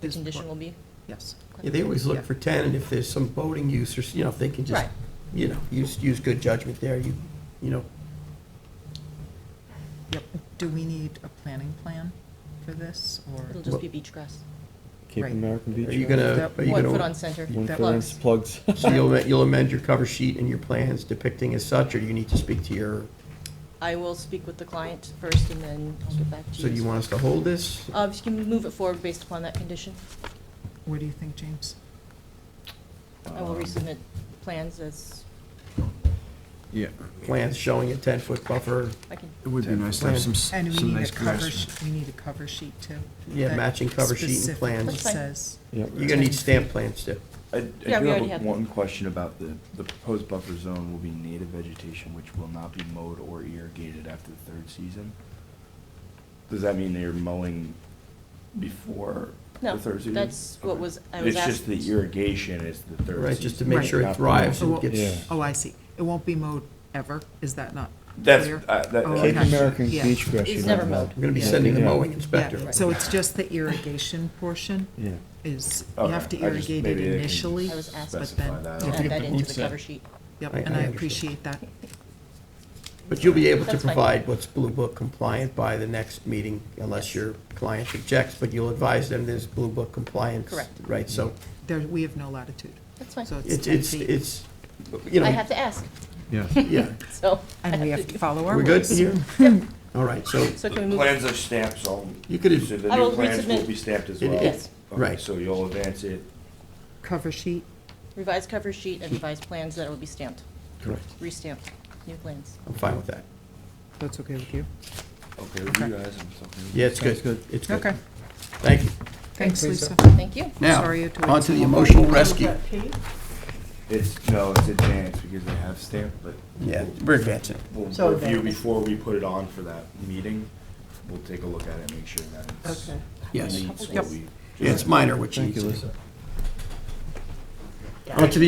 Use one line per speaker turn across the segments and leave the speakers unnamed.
the
Is-
condition will be?
Yes.
Okay.
Yeah, they always
Yeah.
look for 10, and if there's some boating use, or, s- you know, if they can just,
Right.
you know, use, use good judgment there, you, you know,
Yep. Do we need a planning plan for this, or?
It'll just be beach grass.
Cape
Right.
American Beach.
are you gonna,
That
are you
One foot
gonna,
on center.
One
That
foot on
works.
plugs.
so you'll, am- you'll amend your cover sheet and your plans depicting as such, or do you need to speak to your,
I will speak with the client first and then I'll get back to you.
so do you want us to hold this?
Uh, if you can move it forward based upon that condition.
What do you think, James?
I will
Uh,
resubmit plans as
Yeah,
Plans showing a 10-foot buffer,
I can.
it would be nice to have some, s-
And we
some
need a
nice
cover,
grass.
sh- we need a cover sheet too.
yeah,
that
matching cover sheet and
specifically
plans.
That's fine.
Says,
Yep.
You're gonna need stamp plans too.
I I
Yeah, we
do
already
have
have
a- one question about the, the proposed buffer zone will be native vegetation which will not be mowed or irrigated after the third season. Does that mean they're mowing before
No,
the third season?
that's what
Okay.
was- I was
It's just
asked.
the irrigation is the third season.
Right, just to make
Right.
sure it
Not the-
thrives
Oh,
and
well-
Yeah.
gets,
oh, I see. It won't be mowed ever? Is that not
That's,
clear?
uh, that-
Oh,
Cape
okay.
American
Yeah.
Beach grass.
It's
you
never
don't
mowed.
we're gonna be
Yeah.
sending the
Yeah.
mowing inspector.
Yeah, so it's just the irrigation portion
Yeah.
is, you have to
Okay, I just-
irrigate it
maybe they can
initially.
I was asked,
but
specify
then-
that.
Don't
add
forget
that
the
into
roots
the
in.
cover sheet.
Yep, and
I- I
I
understand.
appreciate that.
But you'll be able to
That's fine.
provide what's Blue Book compliant by the next meeting, unless your client objects, but you'll advise them there's Blue Book compliance.
Correct.
Right, so
There, we have no latitude.
That's fine.
So it's
it's,
10
it's,
feet.
it's, you
I
know,
have to ask,
Yeah.
yeah,
so. I
And we have
do-
to follow our
we're good
rules.
here? All right, so,
So
The
can we move,
Plans are stamped, so.
You could-
So the
I will
new plans will
resubmit.
be stamped as
It-
well.
Yes.
Okay,
right.
So you'll advance it.
Cover sheet,
revised cover sheet and revised plans that will be stamped,
correct,
restamped, new plans.
I'm fine with that.
that's okay with you?
Okay, with
Okay.
you guys, I'm talking.
Yeah, it's
Sounds
good, it's good.
Okay,
Thank you.
thanks, Lisa.
Thank you.
Now,
Sorry to-
on to the emotional rescue.
It's, no, it's advanced because they have stamped, but.
Yeah,
we'll-
we're advancing.
We'll
So
review
advanced.
before we put it on for that meeting. We'll take a look at it, and make sure that it's.
Okay.
Yes.
meets what
Yep.
we-
Yeah, it's minor, which
Thank you,
you,
Lisa.
on to the.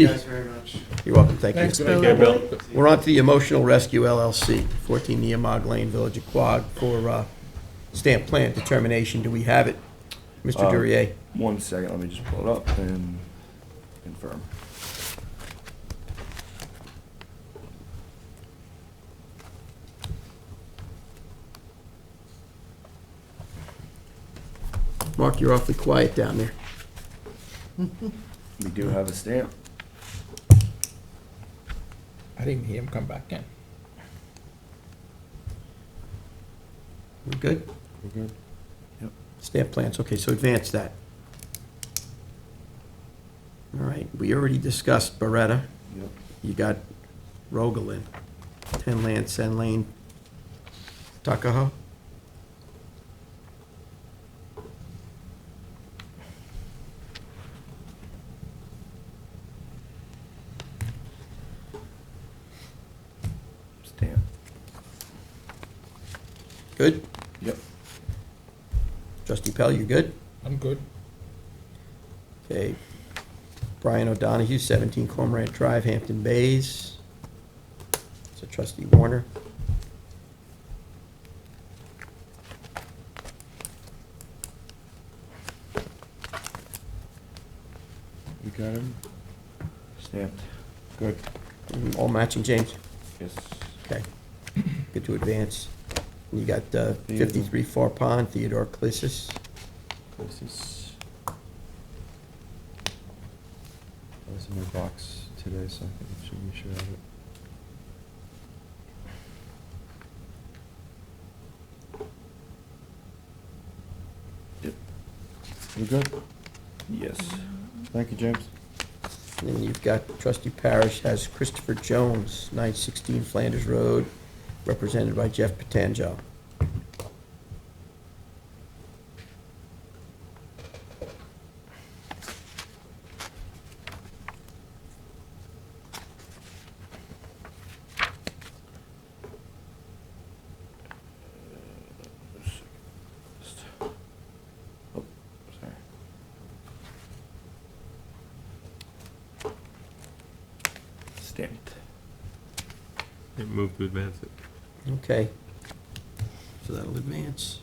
You're welcome, thank you.
Thanks, Bill.
We're on to the Emotional Rescue LLC, 14 Neomog Lane, Village of Quogue, for uh, stamp plan determination. Do we have it? Mr.
Um,
Durier?
One second, let me just pull it up and confirm.
Mark, you're awfully quiet down there.
We do have a stamp.
I didn't hear him come back in.
We're good?
We're good.
Stamp plans, okay, so advance that. All right, we already discussed Beretta.
Yep.
You got Rogalin, 10 Land, Sen Lane, Tuckahoe.
Stamp.
Good?
Yep.
Trustee Pell, you good?
I'm good.
Okay. Brian O'Donohue, 17 Cormorant Drive, Hampton Bays. So trustee Warner.
You got him?
Stamped.
Good.
Mm, All matching, James?
Yes.
Okay. Good to advance. And You got uh, 53 Far Pond, Theodore Clissus.
This is. I was in my box today, so I think we should- we should have it.
Yep.
We're good.
Yes.
Thank you, James.
And then you've got trustee Parish has Christopher Jones, 916 Flanders Road, represented by Jeff Patanjo.
Oh, sorry. Stamped.
It moved to advance it.
Okay. So that'll advance.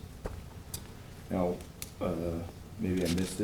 Now, uh, maybe I missed it.